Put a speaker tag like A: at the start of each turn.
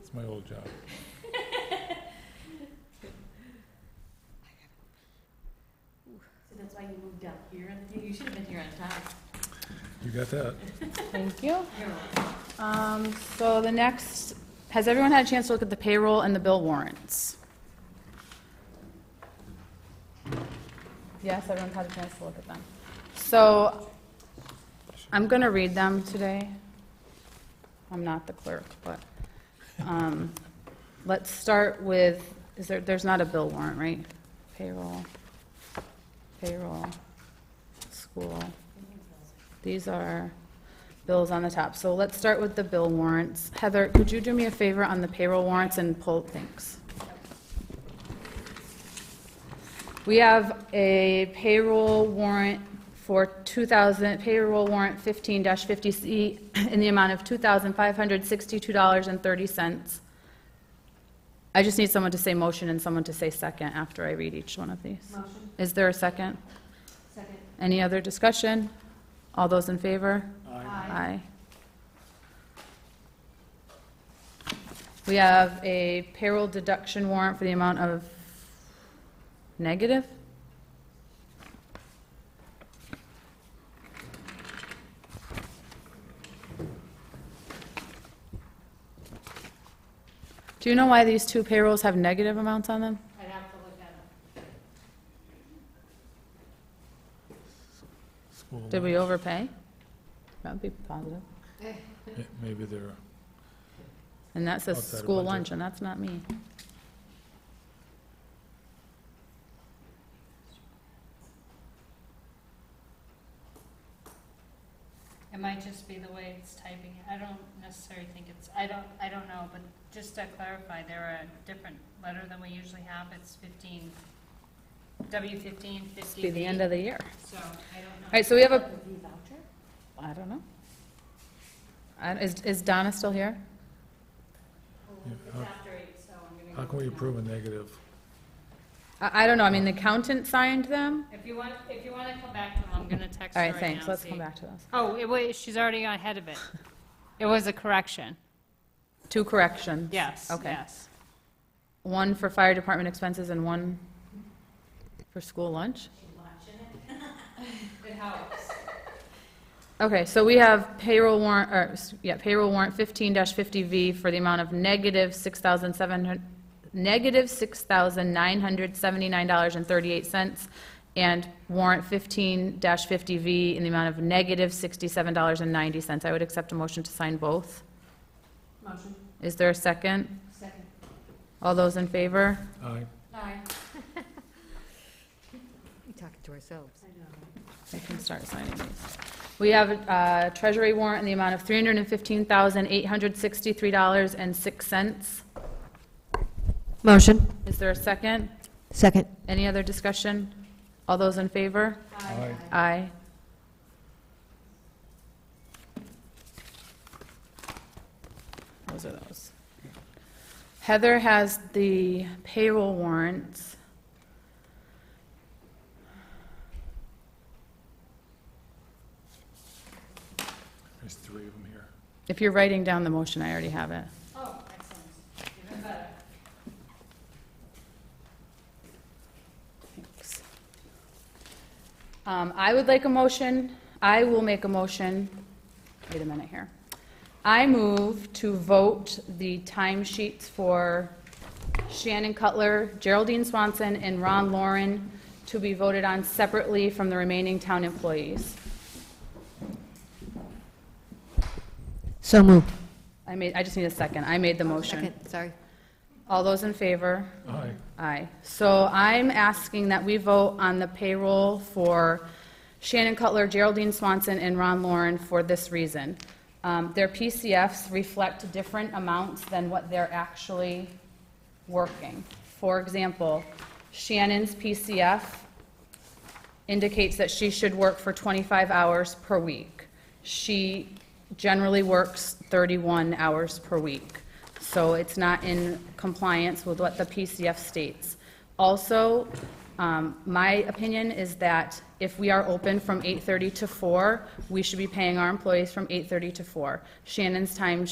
A: It's my old job.
B: So that's why you moved up here, and you- you should have been here on time.
A: You got that?
C: Thank you.
B: You're welcome.
C: Um, So the next, has everyone had a chance to look at the payroll and the bill warrants? Yes, everyone's had a chance to look at them. So I'm going to read them today. I'm not the clerk, but um, let's start with, is there, there's not a bill warrant, right? Payroll, payroll, school. These are bills on the top. So let's start with the bill warrants. Heather, could you do me a favor on the payroll warrants and pull, thanks. We have a payroll warrant for 2000, payroll warrant 15-50C in the amount of $2,562.30. I just need someone to say motion and someone to say second after I read each one of these.
B: Motion,
C: Is there a second?
B: second.
C: Any other discussion? All those in favor?
B: Aye.
C: Aye. We have a payroll deduction warrant for the amount of negative? Do you know why these two payrolls have negative amounts on them?
B: I'd have to look at it.
A: School.
C: Did we overpay? That would be positive.
A: Yeah, Maybe they're,
C: And that says
A: Outside of
C: school
A: budget.
C: lunch, and that's not me.
D: It might just be the way it's typing it. I don't necessarily think it's, I don't, I don't know, but just to clarify, they're a different letter than we usually have. It's fifteen, W fifteen
C: It's
D: fifty
C: be the end of the year.
D: So I don't know.
C: All right, so we have a,
B: The V voucher?
C: I don't know. I- Is is Donna still here?
A: Yeah,
D: It's
A: how-
D: after eight, so I'm gonna.
A: how
D: go
A: can we
D: with no.
A: approve a negative?
C: I I don't know, I mean, the accountant signed them.
D: If you want, if you wanna come back, to them, I'm gonna text her
C: All
D: right
C: right,
D: now.
C: thanks, let's come
D: see.
C: back to those.
D: Oh, it was, she's already ahead of it. It was a correction.
C: Two corrections.
D: Yes,
C: Okay.
D: yes.
C: One for fire department expenses and one for school lunch?
D: It helps.
C: Okay, so we have payroll warrant, or, s- yeah, payroll warrant 15-50V for the amount of negative 6,700, negative $6,979.38, and warrant 15-50V in the amount of negative $67.90. I would accept a motion to sign both.
B: Motion,
C: Is there a second?
B: second.
C: All those in favor?
A: Aye.
B: Aye.
E: We Talking to ourselves.
B: I know.
C: I can start signing these. We have a uh, treasury warrant in the amount of $315,863.06.
E: Motion.
C: Is there a second?
E: Second.
C: Any other discussion? All those in favor?
A: Aye.
C: Aye. Those are those. Heather has the payroll warrants.
A: There's three of them here.
C: If you're writing down the motion, I already have it.
D: Oh, excellent. Even better.
C: Thanks. Um, I would like a motion, I will make a motion, wait a minute here. I move to vote the timesheets for Shannon Cutler, Geraldine Swanson, and Ron Lauren to be voted on separately from the remaining town employees.
E: So moved.
C: I made, I just need a second, I made the motion.
E: Second, sorry.
C: All those in favor?
A: Aye.
C: Aye. So I'm asking that we vote on the payroll for Shannon Cutler, Geraldine Swanson, and Ron Lauren for this reason. Um, Their PCFs reflect different amounts than what they're actually working. For example, Shannon's PCF indicates that she should work for 25 hours per week. She generally works 31 hours per week, so it's not in compliance with what the PCF states. Also, um, my opinion is that if we are open from 8:30 to 4, we should be paying our employees from 8:30 to 4. Shannon's time